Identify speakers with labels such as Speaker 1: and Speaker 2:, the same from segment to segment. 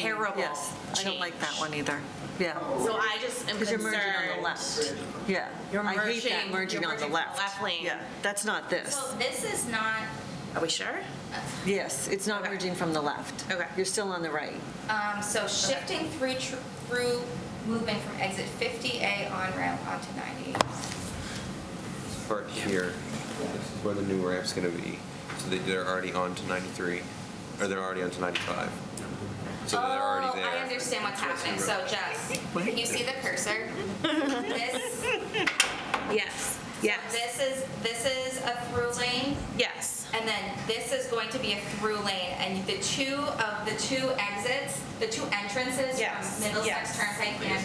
Speaker 1: terrible.
Speaker 2: Yes, I don't like that
Speaker 1: change.
Speaker 2: one either. Yeah,
Speaker 1: So I just am
Speaker 2: because you're
Speaker 1: concerned.
Speaker 2: merging on the left. Yeah.
Speaker 1: You're
Speaker 2: I hate that
Speaker 1: merging- you're
Speaker 2: merging on the
Speaker 1: merging on the
Speaker 2: left.
Speaker 1: left lane.
Speaker 2: Yeah, that's not this.
Speaker 3: So this is not,
Speaker 1: Are we sure?
Speaker 2: Yes, it's not merging from the left.
Speaker 1: Okay.
Speaker 2: You're still on the right.
Speaker 3: um, so shifting through, tr- through, moving from exit 50A on ramp onto 90.
Speaker 4: part here, this is where the new ramp's gonna be, so that they're already on to 93, or they're already on to 95. So they're already there.
Speaker 3: Oh, I understand what's happening. So Jess, can you see the cursor? This,
Speaker 1: Yes, yes,
Speaker 3: this is, this is a through lane,
Speaker 1: yes.
Speaker 3: and then this is going to be a through lane. And the two of, the two exits, the two entrances
Speaker 1: Yes,
Speaker 3: from
Speaker 1: yes.
Speaker 3: Middlesex Turnpike and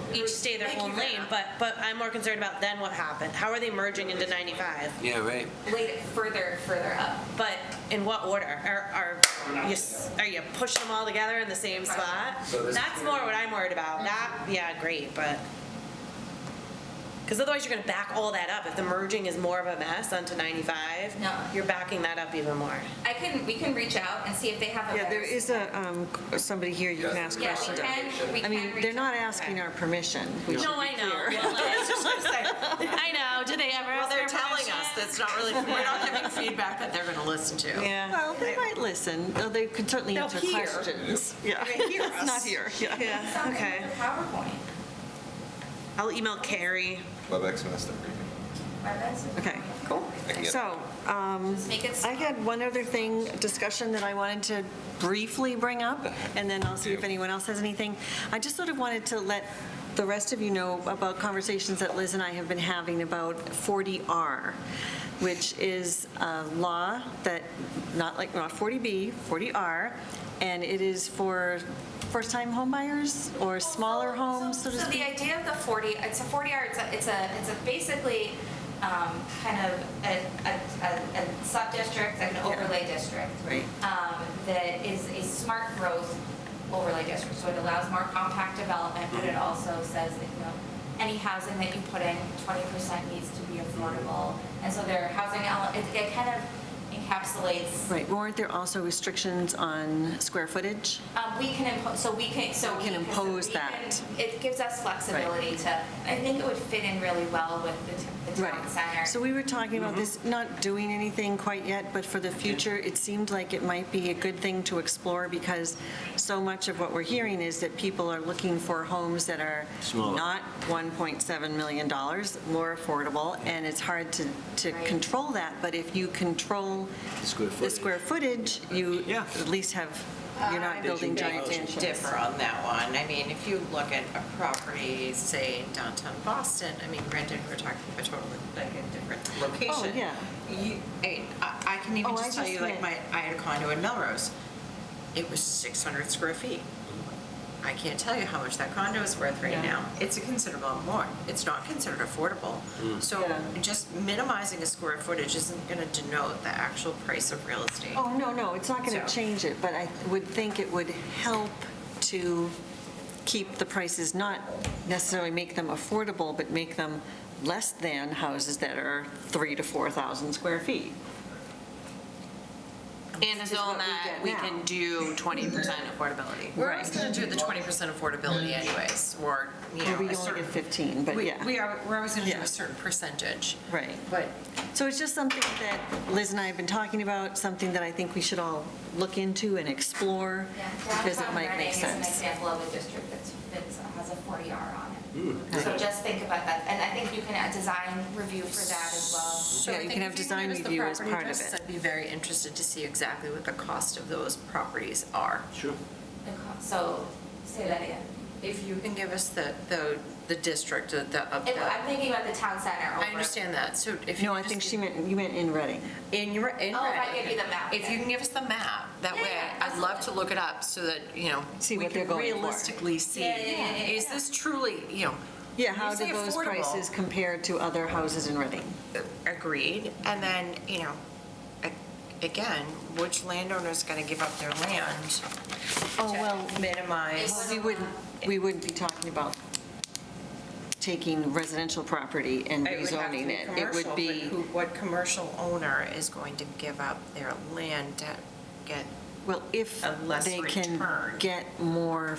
Speaker 3: from,
Speaker 1: Each stay their
Speaker 3: Thank
Speaker 1: own
Speaker 3: you for
Speaker 1: lane,
Speaker 3: that.
Speaker 1: but, but I'm more concerned about then what happened. How are they merging into 95?
Speaker 4: Yeah, right.
Speaker 3: laid it further, further up.
Speaker 1: But in what order? Are, are you, s- are you pushing them all together in the same spot? That's more what I'm worried about. That, yeah, great, but. Because otherwise you're gonna back all that up. If the merging is more of a mess onto 95,
Speaker 3: No.
Speaker 1: you're backing that up even more.
Speaker 3: I can, we can reach out and see if they have a
Speaker 2: Yeah, there
Speaker 3: better-
Speaker 2: is a, um, somebody here you can ask
Speaker 3: Yeah,
Speaker 2: questions
Speaker 3: we
Speaker 2: of.
Speaker 3: can, we
Speaker 2: I
Speaker 3: can
Speaker 2: mean,
Speaker 3: reach
Speaker 2: they're
Speaker 3: out.
Speaker 2: not asking our permission. We should
Speaker 1: No,
Speaker 2: be
Speaker 1: I know.
Speaker 2: clear.
Speaker 1: Well, that's just what I'm saying. I know. Did they ever
Speaker 5: Well,
Speaker 1: ask
Speaker 5: they're
Speaker 1: for
Speaker 5: telling us
Speaker 1: permission?
Speaker 5: that's not really, we're not giving feedback that they're going to listen to.
Speaker 1: Yeah.
Speaker 2: Well, they might listen, though they could certainly
Speaker 1: They'll
Speaker 2: answer
Speaker 1: hear.
Speaker 2: questions. Yeah,
Speaker 1: They hear us.
Speaker 2: Not here, yeah.
Speaker 1: Yeah,
Speaker 3: Something
Speaker 1: okay.
Speaker 3: with the PowerPoint.
Speaker 1: I'll email Carrie.
Speaker 4: WebEx master briefing.
Speaker 3: My best is-
Speaker 2: Okay, cool.
Speaker 4: I can get-
Speaker 2: So, um,
Speaker 3: Just make it
Speaker 2: I had one other thing, discussion that I wanted to briefly bring up, and then I'll see if
Speaker 4: Yeah.
Speaker 2: anyone else has anything. I just sort of wanted to let the rest of you know about conversations that Liz and I have been having about 40R, which is a law that, not like, not 40B, 40R, and it is for first-time homebuyers or smaller homes, so to
Speaker 3: So the
Speaker 2: speak.
Speaker 3: idea of the 40, it's a 40 yard, it's a, it's a, it's a basically um, kind of a, a, a- a sub-district, like an overlay district.
Speaker 2: Right.
Speaker 3: um, That is a smart growth overlay district, so it allows more compact development, but
Speaker 2: Mm-hmm.
Speaker 3: it also says that, you know, any housing that you put in, 20% needs to be affordable. And so their housing, ele- it, it kind of encapsulates
Speaker 2: Right, weren't there also restrictions on square footage?
Speaker 3: Um, we can impose, so we can, so.
Speaker 2: We can impose
Speaker 3: we
Speaker 2: that.
Speaker 3: can- It gives us flexibility to, I think it would fit in really well with the t- the town center.
Speaker 2: So we were talking about this, not doing anything quite yet, but for the future, it seemed like it might be a good thing to explore because so much of what we're hearing is that people are looking for homes that are not $1.7 million, more affordable, and it's hard to, to
Speaker 3: Right.
Speaker 2: control that, but if you control the square footage, you at least have, you're not
Speaker 3: Uh,
Speaker 2: building giant mansions.
Speaker 5: Differ on that one. I mean, if you look at a property, say in downtown Boston, I mean, granted, we're talking about totally like a different location.
Speaker 2: Oh, yeah.
Speaker 5: You, I, mean, I I can even
Speaker 2: Oh, I
Speaker 5: just tell
Speaker 2: just
Speaker 5: you, like, my,
Speaker 2: meant-
Speaker 5: I had a condo in Melrose. It was 600 square feet. I can't tell you how much that condo is worth right now. It's a considerable more. It's not considered affordable. So
Speaker 2: Yeah.
Speaker 5: just minimizing a square footage isn't going to denote the actual price of real estate.
Speaker 2: Oh, no, no, it's not going to
Speaker 5: So-
Speaker 2: change it, but I would think it would help to keep the prices, not necessarily make them affordable, but make them less than houses that are 3 to 4,000 square feet.
Speaker 5: And as
Speaker 2: what
Speaker 5: though
Speaker 2: we
Speaker 5: that
Speaker 2: get
Speaker 5: we
Speaker 2: now.
Speaker 5: can do twenty percent affordability. We're always
Speaker 2: Right.
Speaker 5: gonna do the twenty percent affordability anyways, or, you
Speaker 2: Or
Speaker 5: know,
Speaker 2: we
Speaker 5: a
Speaker 2: only
Speaker 5: certain.
Speaker 2: get 15, but
Speaker 5: We-
Speaker 2: yeah.
Speaker 5: We are, we're always gonna do
Speaker 2: Yeah.
Speaker 5: a certain percentage.
Speaker 2: Right.
Speaker 5: But
Speaker 2: So it's just something that Liz and I have been talking about, something that I think we should all look into and explore,
Speaker 3: Yeah,
Speaker 2: because it
Speaker 3: downtown
Speaker 2: might
Speaker 3: Reading
Speaker 2: make
Speaker 3: is an
Speaker 2: sense.
Speaker 3: example of a district that's, that's, has a 40R on it. So just think about that, and I think you can add design review for that as well.
Speaker 5: So
Speaker 2: Yeah,
Speaker 5: I
Speaker 2: you
Speaker 5: think
Speaker 2: can
Speaker 5: if
Speaker 2: have design
Speaker 5: notice the
Speaker 2: review as
Speaker 5: property
Speaker 2: part of
Speaker 5: addresses,
Speaker 2: it.
Speaker 5: I'd be very interested to see exactly what the cost of those properties are.
Speaker 3: The co- So, say that again.
Speaker 5: If you can give us the, the, the district, the, the- of
Speaker 3: If-
Speaker 5: the,
Speaker 3: I'm thinking about the town center over.
Speaker 5: I understand that, so if you.
Speaker 2: No, I
Speaker 5: just
Speaker 2: think
Speaker 5: give-
Speaker 2: she meant, you meant in Reading.
Speaker 5: In your, in.
Speaker 3: Oh, if I
Speaker 5: Reading.
Speaker 3: give you the map,
Speaker 5: If you
Speaker 3: yeah.
Speaker 5: can give us the map, that
Speaker 3: Yeah,
Speaker 5: way,
Speaker 3: yeah,
Speaker 5: I'd love to look it up so that, you know.
Speaker 2: See
Speaker 5: we
Speaker 2: what they're
Speaker 5: can
Speaker 2: going for.
Speaker 5: Realistically see,
Speaker 3: Yeah, yeah, yeah, yeah,
Speaker 5: is
Speaker 3: yeah.
Speaker 5: this truly, you know.
Speaker 2: Yeah,
Speaker 5: when
Speaker 2: how
Speaker 5: you
Speaker 2: do
Speaker 5: say
Speaker 2: those
Speaker 5: affordable,
Speaker 2: prices compare to other houses in Reading?
Speaker 5: Agreed, and then, you know, a- again, which landowner's gonna give up their land?
Speaker 2: Oh,
Speaker 5: to
Speaker 2: well,
Speaker 5: Minimize.
Speaker 2: Well, we wouldn't, we wouldn't be talking about taking residential property and
Speaker 5: It would have to
Speaker 2: rezoning
Speaker 5: be
Speaker 2: it. It would
Speaker 5: commercial,
Speaker 2: be,
Speaker 5: but who- What commercial owner is going to give up their land to get
Speaker 2: Well, if
Speaker 5: A less
Speaker 2: they can
Speaker 5: return.
Speaker 2: get more